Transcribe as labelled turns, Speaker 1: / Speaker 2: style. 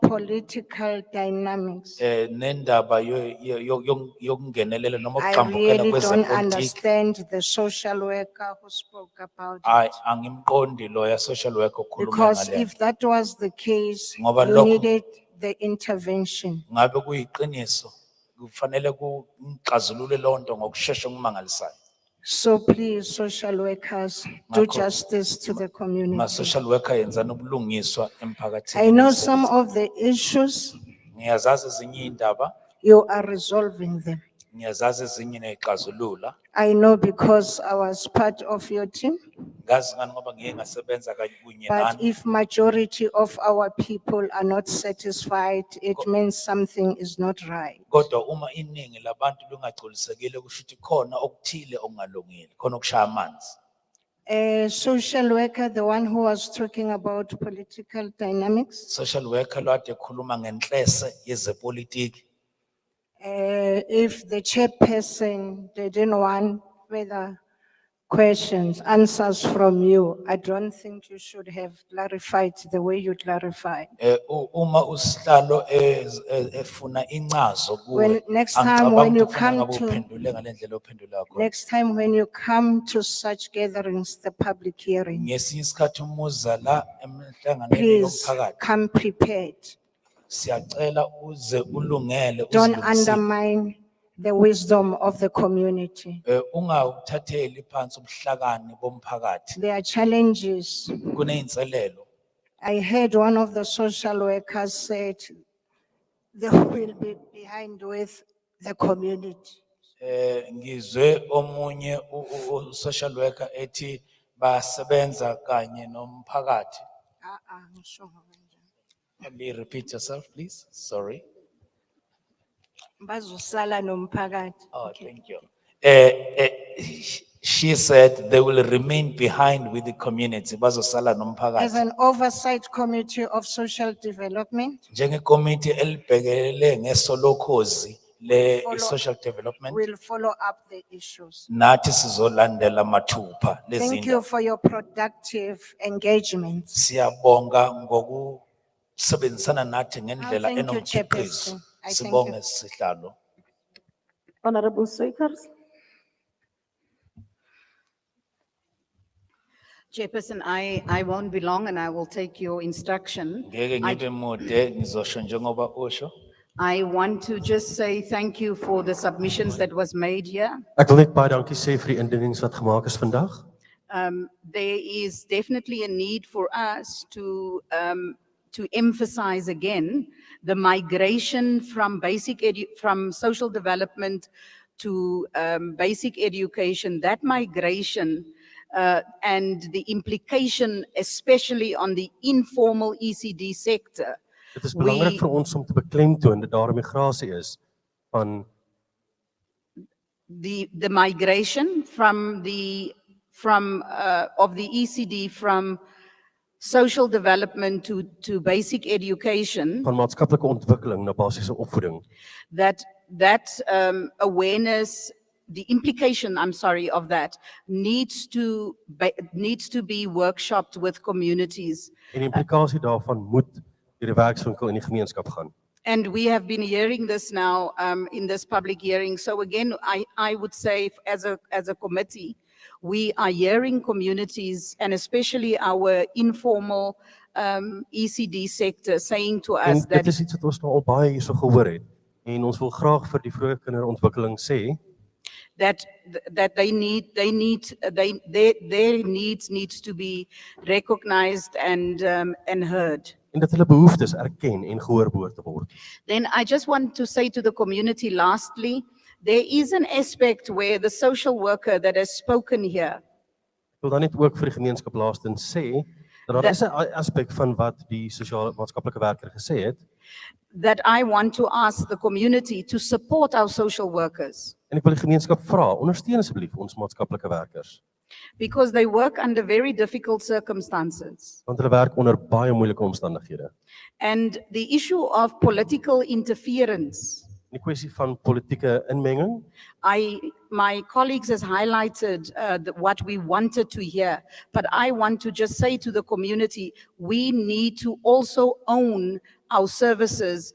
Speaker 1: political dynamics.
Speaker 2: eh nendaba yo- yo- yo- yo- yokungenelela noma
Speaker 1: I
Speaker 2: ukuqhambukela
Speaker 1: really don't
Speaker 2: kwezepolitiki.
Speaker 1: understand the social worker who spoke about
Speaker 2: Ay,
Speaker 1: it.
Speaker 2: angimqondi loya social worker okhuluma
Speaker 1: Because
Speaker 2: ngale.
Speaker 1: if that was the case,
Speaker 2: Ngoba
Speaker 1: you
Speaker 2: lokho-
Speaker 1: needed the intervention.
Speaker 2: Ngabe kuyiqiniso, kufanele ku ngixazulule lonto ngokushesha okumangalisayo.
Speaker 1: So please, social workers, do
Speaker 2: Ngakho-
Speaker 1: justice to the
Speaker 2: Ma
Speaker 1: community.
Speaker 2: social worker yenzani ubulungiswa emphakathini.
Speaker 1: I know some of the issues,
Speaker 2: Ngiyazazi ezinye indaba,
Speaker 1: you are resolving them.
Speaker 2: ngiyazazi ezinye nexazulula.
Speaker 1: I know because I was part of your team,
Speaker 2: Ngazi ngani ngoba ngiye ngasebenza kanye kunye
Speaker 1: but
Speaker 2: nani.
Speaker 1: if majority of our people are not satisfied, it means something is not right.
Speaker 2: Kodwa uma iningi labantu lungagculisekile kusho ukuthi khona okuthile okungalungile, khona okushaya amanzi.
Speaker 1: A social worker, the one who was talking about political dynamics,
Speaker 2: social worker lwade khuluma ngenhlese yezepolitiki.
Speaker 1: uh, if the chairperson didn't want further questions, answers from you, I don't think you should have clarified the way you clarified.
Speaker 2: Eh, u- uma usihlalo ez- e- efuna incazo kuwe.
Speaker 1: When- next time
Speaker 2: angicabangi
Speaker 1: when you
Speaker 2: ukuthi kufanele
Speaker 1: come
Speaker 2: ngabe
Speaker 1: to-
Speaker 2: uphendule ngale ndlela ophendula ngayo.
Speaker 1: Next time when you come to such gatherings, the public hearing,
Speaker 2: Ngesinye isikhathi umuza la emhlanganweni
Speaker 1: please
Speaker 2: yomphakathi.
Speaker 1: come prepared.
Speaker 2: Siyacela uze ulungele.
Speaker 1: Don't
Speaker 2: uzilungisile.
Speaker 1: undermine the wisdom of the community.
Speaker 2: Eh, Ungawuthatheli phansi ubuhlakani bomphakathi.
Speaker 1: There are challenges.
Speaker 2: Kuneyinselelo.
Speaker 1: I heard one of the social workers said, they will be behind with the community.
Speaker 2: Eh, ngizwe omunye u, u, u, social worker ethi basebenza kanye nomphakathi.
Speaker 1: Ah, ah, ngisho ngokanjani.
Speaker 2: Can you repeat yourself, please? Sorry.
Speaker 1: Bazosala nomphakathi.
Speaker 2: Oh, thank you. Eh, eh, sh- she said they will remain behind with the community. Bazosala
Speaker 1: As
Speaker 2: nomphakathi.
Speaker 1: an oversight committee of social development,
Speaker 2: Njenge committee elibhekelele ngesolokhozi le
Speaker 1: Follow-
Speaker 2: social development.
Speaker 1: we'll follow up the issues.
Speaker 2: Nathi sizolandela mathupha
Speaker 1: Thank you
Speaker 2: lezinto.
Speaker 1: for your productive engagement.
Speaker 2: Siyabonga ngoku sebenzisana nathi ngendlela
Speaker 1: Oh, thank you,
Speaker 2: enomkhiqizo.
Speaker 1: Chairperson. I thank
Speaker 2: Sibonge
Speaker 1: you.
Speaker 2: sihlalo.
Speaker 3: Honorable speakers,
Speaker 4: Chairperson, I, I won't be long and I will take your instruction.
Speaker 2: Ngeke ngibe mude ngizosho njengoba usho.
Speaker 4: I want to just say thank you for the submissions that was made here.
Speaker 5: Ek wil net baie dankie sê vir die indienings wat gemaak is vandag.
Speaker 4: Um, There is definitely a need for us to, um, to emphasize again the migration from basic edu, from social development to um, basic education, that migration uh, and the implication especially on the informal ECD sector.
Speaker 5: Dit is belangrik
Speaker 4: We-
Speaker 5: vir ons om te beklemtoon dat daar 'n migrasie is van
Speaker 4: the, the migration from the, from, uh, of the ECD from social development to, to basic education,
Speaker 5: van maatskaplike ontwikkeling na basiese opvoeding.
Speaker 4: that, that um, awareness, the implication, I'm sorry, of that needs to, ba- needs to be workshopped with communities.
Speaker 5: En die implikasie daarvan moet deur die werkswinkel in die gemeenskap gaan.
Speaker 4: And we have been hearing this now um, in this public hearing. So again, I, I would say f- as a, as a committee, we are hearing communities and especially our informal um, ECD sector saying to
Speaker 5: En
Speaker 4: us
Speaker 5: dit
Speaker 4: that,
Speaker 5: is iets wat ons nou al baie hierso gehoor het en ons wil graag vir die vroeë kinderontwikkeling sê
Speaker 4: that, th- that they need, they need, they, their, their needs needs to be recognized and, um, and heard.
Speaker 5: en dat hulle behoeftes erken en gehoor behoort te word.
Speaker 4: Then I just want to say to the community lastly, there is an aspect where the social worker that has spoken here
Speaker 5: Ek wil dan net ook vir die gemeenskap laastens sê dat daar
Speaker 4: Dat-
Speaker 5: is 'n a- aspek van wat die sosiale maatskaplike werker gesê het
Speaker 4: that I want to ask the community to support our social workers
Speaker 5: en ek wil die gemeenskap vra, ondersteun asseblief ons maatskaplike werkers.
Speaker 4: because they work under very difficult circumstances.
Speaker 5: want hulle werk onder baie moeilike omstandighede.
Speaker 4: And the issue of political interference,
Speaker 5: In die kwessie van politieke inmenging,
Speaker 4: I, my colleagues has highlighted uh, the- what we wanted to hear, but I want to just say to the community, we need to also own our services